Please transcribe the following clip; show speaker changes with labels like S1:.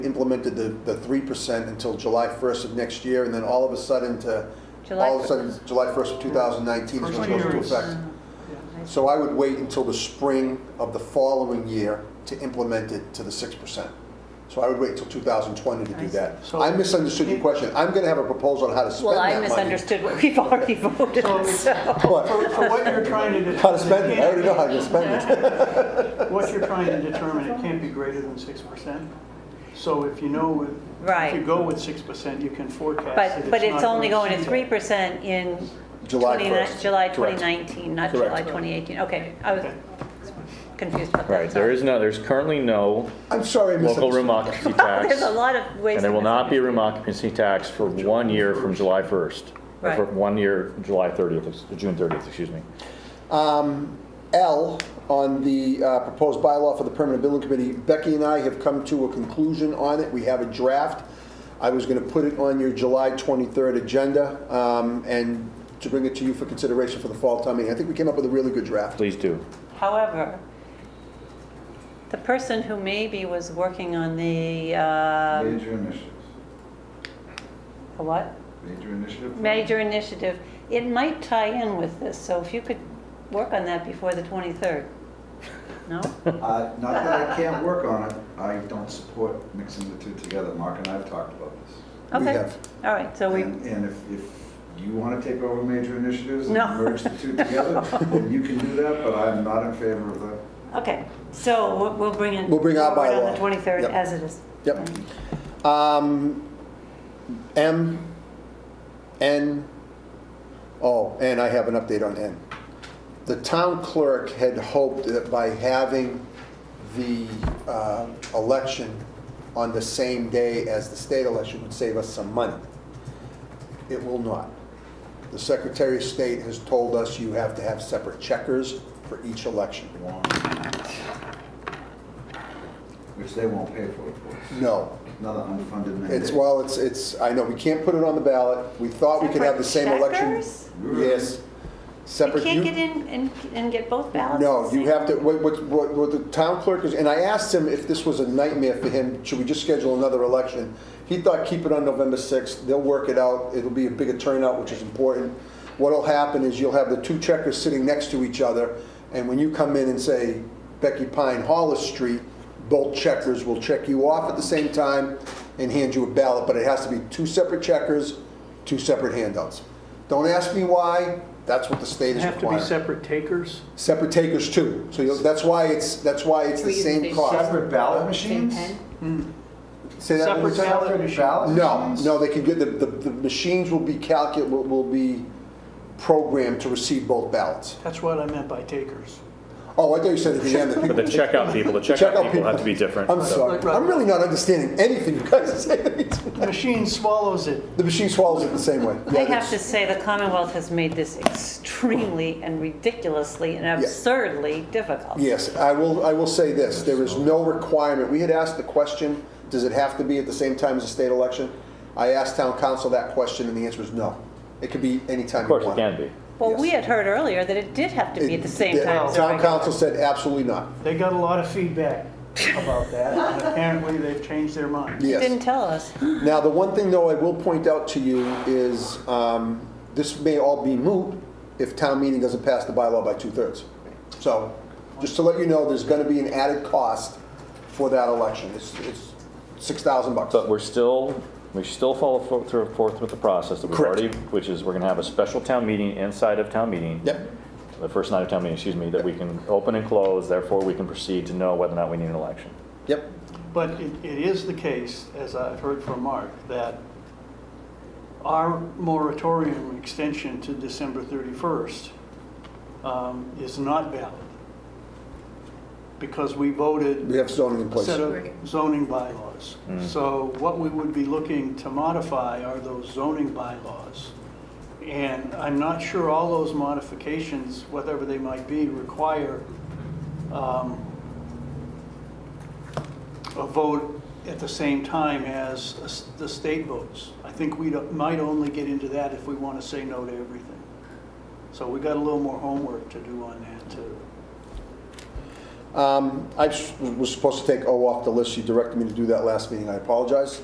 S1: implemented the, the three percent until July first of next year, and then all of a sudden to,
S2: July
S1: all of a sudden, July first of two thousand nineteen is
S3: First
S1: when it goes
S3: year
S1: into
S3: is-
S1: effect. So I would wait until the spring of the following year to implement it to the six percent. So I would wait until two thousand twenty to do that.
S3: So-
S1: I misunderstood your question. I'm gonna have a proposal on how to spend
S2: Well,
S1: that money.
S2: I misunderstood what we've already voted,
S3: So-
S2: so.
S1: But-
S3: For, for what you're trying to determine.
S1: How to spend it, I already know how
S3: it
S1: to spend it.
S3: can't- What you're trying to determine, it can't be greater than six percent. So if you know, with- if you
S2: Right.
S3: go with six percent, you can forecast that
S2: But, but it's
S3: not
S2: only going to three
S3: exceed
S2: percent in
S1: July
S2: 29
S1: 1st.
S2: July
S1: Correct.
S2: 2019, not
S1: Correct.
S2: July 2018. Okay, I was
S3: Okay.
S2: confused about that.
S4: Right, there
S2: sorry.
S4: is no, there's currently no
S1: I'm sorry, I misunderstood.
S4: local room occupancy
S2: Wow,
S4: tax.
S2: There's a lot of ways.
S4: And there
S2: to
S4: will not be a
S2: misunderstand.
S4: room occupancy tax for one year from July 1st. or For
S2: Right.
S4: one year, July 30th, June 30th, excuse me.
S1: L on the uh, proposed bylaw for the permanent building committee. Becky and I have come to a conclusion on it. We have a draft. I was going to put it on your July 23rd agenda um, and to bring it to you for consideration for the fall town meeting. I think we came up with a really good draft.
S4: Please do.
S2: However, the person who maybe was working on the, um,
S5: Major initiatives,
S2: the what?
S5: major initiative.
S2: Major initiative, it might tie in with this, so if you could work on that before the 23rd. No?
S5: Uh, Not that I can't work on it, I don't support mixing the two together. Mark and I have talked about this.
S1: We
S2: Okay.
S1: have.
S2: All right, so we,
S5: And and if, if you want to take over major initiatives and
S2: No.
S5: merge the two together, then you can do that, but I'm not in favor of that.
S2: okay, so we'll- we'll bring in.
S1: We'll bring our
S2: forward On
S1: bylaw.
S2: the 23rd
S1: Yep.
S2: as it is.
S1: Yep. Um, M, N, oh, and I have an update on N. The town clerk had hoped that by having the uh, election on the same day as the state election would save us some money. It will not. The Secretary of State has told us you have to have separate checkers for each election.
S5: Which they won't pay for, of course.
S1: No,
S5: Another unfunded mandate.
S1: It's, well, it's, it's, I know, we can't put it on the ballot. We thought we could have the same election.
S2: Checkers?
S1: Yes.
S2: You
S1: Separate.
S2: can't get in and, and get both ballots? at
S1: No,
S2: the
S1: you
S2: same-
S1: have to, what, what, what what the town clerk is, and I asked him if this was a nightmare for him, should we just schedule another election? He thought, keep it on November 6th, they'll work it out, it'll be a bigger turnout, which is important. What'll happen is you'll have the two checkers sitting next to each other, and when you come in and say Becky Pine Hollis Street, both checkers will check you off at the same time and hand you a ballot, but it has to be two separate checkers, two separate handouts. Don't ask me why, that's what the state is
S3: Have to be
S1: requiring
S3: separate takers.
S1: separate takers too. So you'll, that's why it's, that's why it's the
S6: We're using
S1: same
S6: big
S1: cost.
S5: Separate ballot
S6: Same
S5: machines?
S6: pen?
S1: Say that one more
S3: Separate
S1: time.
S3: ballot
S5: Separate
S3: machines.
S5: ballot
S1: No,
S5: machines?
S1: no, they can get, the, the, the machines will be calcu, will, will be programmed to receive both ballots.
S3: That's what I meant by takers.
S1: Oh, I thought you said at the end that
S4: But the
S1: people.
S4: checkout people, the
S1: checkout
S4: checkout people have to be different.
S1: I'm sorry,
S4: so-
S1: I'm really not understanding anything you guys are saying.
S3: The machine swallows it.
S1: The machine swallows it the same way.
S2: I
S1: Yeah,
S2: have to say, the Commonwealth has made this extremely and ridiculously and absurdly difficult.
S1: Yes, I will, I will say this, there is no requirement, we had asked the question, does it have to be at the same time as the state election? I asked town council that question and the answer is no. It could be any time
S4: Of
S1: you
S4: course
S1: want.
S4: it can be.
S2: Well, we had heard earlier that it did have to be at the same
S1: It-
S2: time as the
S1: Town
S2: regular.
S1: council said absolutely not,
S3: They got a lot of feedback about that. and Apparently, they've changed their mind.
S2: He didn't
S1: yes.
S2: tell us.
S1: Now, the one thing though I will point out to you is, um, this may all be moot if town meeting doesn't pass the bylaw by two-thirds. So, just to let you know, there's gonna be an added cost for that election, it's, it's six thousand bucks.
S4: But we're still, we still follow fo- through forth with the process that we've
S1: Correct.
S4: already, which is we're going to have a special town meeting inside of town meeting.
S1: Yep,
S4: The first night of town meeting, excuse me, that we can open and close, therefore we can proceed to know whether or not we need an election.
S1: yep.
S3: But it, it is the case, as I've heard from Mark, that our moratorium extension to December 31st um, is not valid because we voted
S1: We have zoning in
S3: a
S1: place.
S3: set of zoning bylaws. So what we would be looking to modify are those zoning bylaws. And I'm not sure all those modifications, whatever they might be, require um, a vote at the same time as a s- the state votes. I think we might only get into that if we want to say no to everything. So we got a little more homework to do on that, too.
S1: Um, I s- was supposed to take O off the list. She directed me to do that last meeting. I apologize.